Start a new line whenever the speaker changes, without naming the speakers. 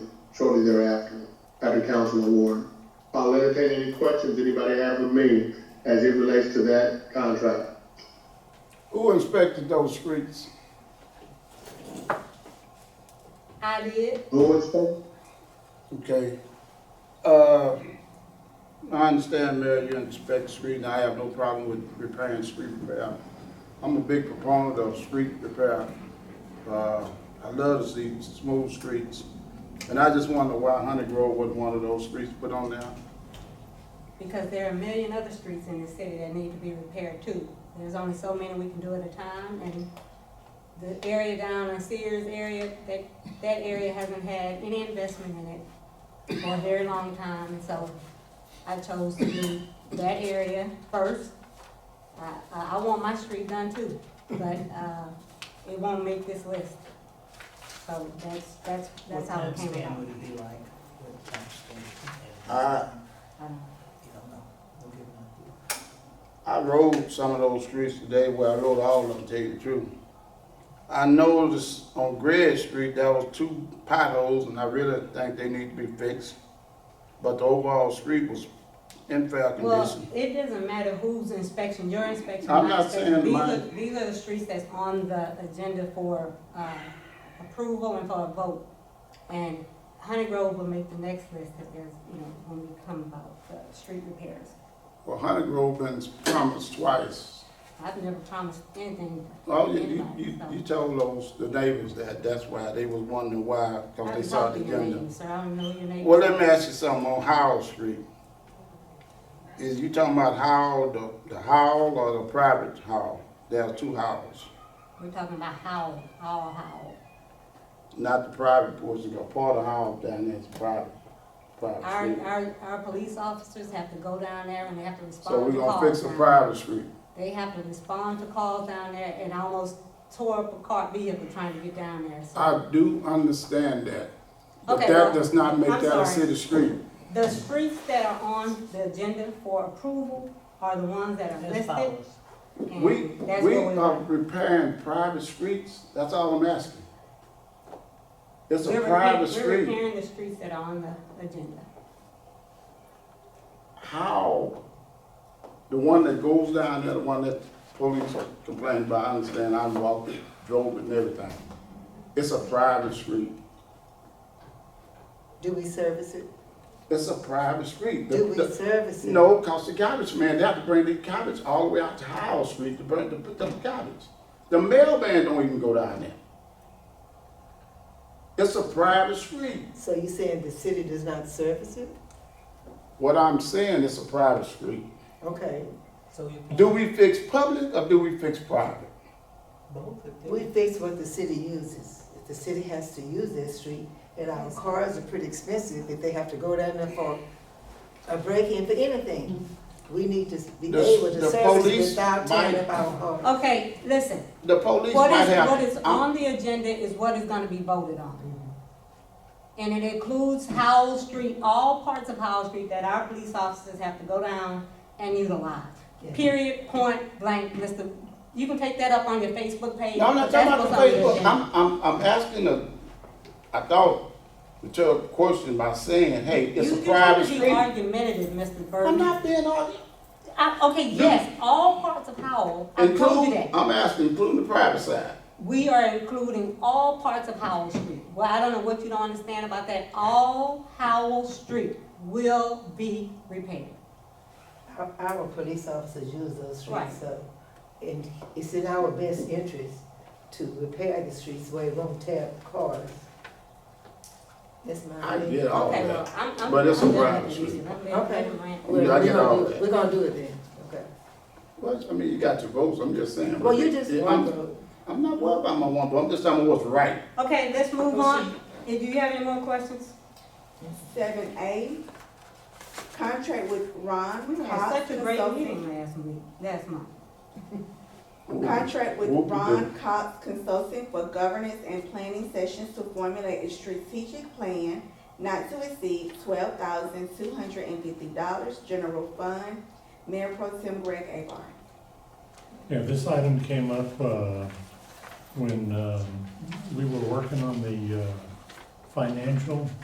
shortly thereafter after Councilman Ward. I'll entertain any questions anybody have of me as it relates to that contract.
Who inspected those streets?
I did.
Who inspected?
Okay. Uh, I understand, Mayor, you inspect street, and I have no problem with repairing street repair. I'm a big proponent of street repair. Uh, I love to see smooth streets. And I just wonder why Honey Grove wasn't one of those streets put on there.
Because there are a million other streets in the city that need to be repaired too. There's only so many we can do at a time, and the area down in Sears area, that, that area hasn't had any investment in it for a very long time, and so I chose to do that area first. I, I I want my street done too, but, uh, it won't make this list. So that's, that's,
What
that's how
time
it came
span
about.
would it be like? What time span?
I,
I don't know.
You don't know. We'll give an idea.
I rode some of those streets today, well, I rode all of them, to tell you the truth. I noticed on Greg Street, there was two potholes, and I really think they need to be fixed. But the overall street was in fair
Well,
condition.
it doesn't matter whose inspection, your inspection,
I'm
my
not saying
inspection, these are,
mine.
these are the streets that's on the agenda for, uh, approval and for a vote. And Honey Grove will make the next list if there's, you know, when we come about the street repairs.
Well, Hunter Grove been promised twice.
I've never promised anything. to
Oh, you, you,
anybody,
you,
so.
you told those, the neighbors that, that's why, they was wondering why,
I
cause they
haven't
saw
talked
the
to your
agenda.
name, sir, I don't know your name.
Well, let me ask you something on Howell Street. Is you talking about Howell, the, the Howell or the private Howell? There are two Howells,
We're talking about how, how, how.
not the private portion, a part of Howell down there is private,
Our,
private street.
our, our police officers have to go down there and they have to respond
So
to calls.
we gonna fix the
now.
private street.
They have to respond to calls down there and I almost tore up a car vehicle trying to get down there. So
I do understand that, but
Okay,
that
well,
does not make
I'm
that a
sorry.
city street.
The streets that are on the agenda for approval are the ones that are
As
listed.
follows.
and
We,
Mm, that's
we um,
where we
are
are.
repairing private streets, that's all I'm asking. It's a
We're repa-
private
We're
street.
repairing the streets that are on the agenda.
how the one that goes down there, the one that police complained about, I understand, I walked it, drove it and everything. It's a private street.
Do we service it?
It's a private street. The-
Do we
the-
service it?
No, cause the garbage man, they have to bring the garbage all the way out to Howell Street to bring, to pick up the garbage. The mailman don't even go down there. It's a private street.
So you saying the city does not service it?
What I'm saying, it's a private street.
Okay,
So you.
Do we fix public or do we fix private?
Both of
we
them.
fix what the city uses. If the city has to use that street, and our cars are pretty expensive, if they have to go down there for a break-in for anything, we need to be
The-
able
the
to service it
police
without tearing
might-
up our cars.
Okay, listen,
The police
what
might
is,
have.
what is
I'm-
on the agenda is what is gonna be voted on. And it includes Howell Street, all parts of Howell Street that our police officers have to go down and utilize.
Yeah.
Period, point blank, Mr. You can take that up on your Facebook page.
No, I'm not talking about the
That's what's on
Facebook,
agenda.
I'm, I'm, I'm asking a, I thought, rhetorical question by saying, hey, it's
You-
a private
You
street.
trying to be argumentative, Mr.
I'm
Burton.
not being all,
I, okay,
You-
yes, all parts of Howell, I told you
including,
that.
I'm asking, including the private side.
We are including all parts of Howell Street. Well, I don't know what you don't understand about that. All Howell Street will be repaired.
Our, our police officers use those
Right.
streets, so, and it's in our best interest to repair the streets where it won't tear up cars. That's my
I
opinion.
get all
Okay, well,
that.
I'm, I'm.
Oh, But it's a
I'm done
private
with
street.
this. I'm being
Okay.
ignorant.
I
We're-
get
we're gonna
all
do-
that.
We're gonna do it then, okay.
Well, I mean, you got your votes, I'm just saying.
Well, you just
Yeah,
want
I'm,
to,
I'm not worried about my one vote, I'm just talking about what's right.
Okay, let's move on. Do you have any more questions?
Seven A, contract with Ron.
We had
Cox
such a great
Consulting-
meeting last week, last month.
Contract with
Whoop de
Ron Cox Consulting for governance and planning sessions to formulate a strategic plan not to exceed twelve thousand two hundred and fifty dollars, general fund, Mayor Pro Tem Greg Abar.
Yeah, this item came up uh, when um, we were working on the uh, financial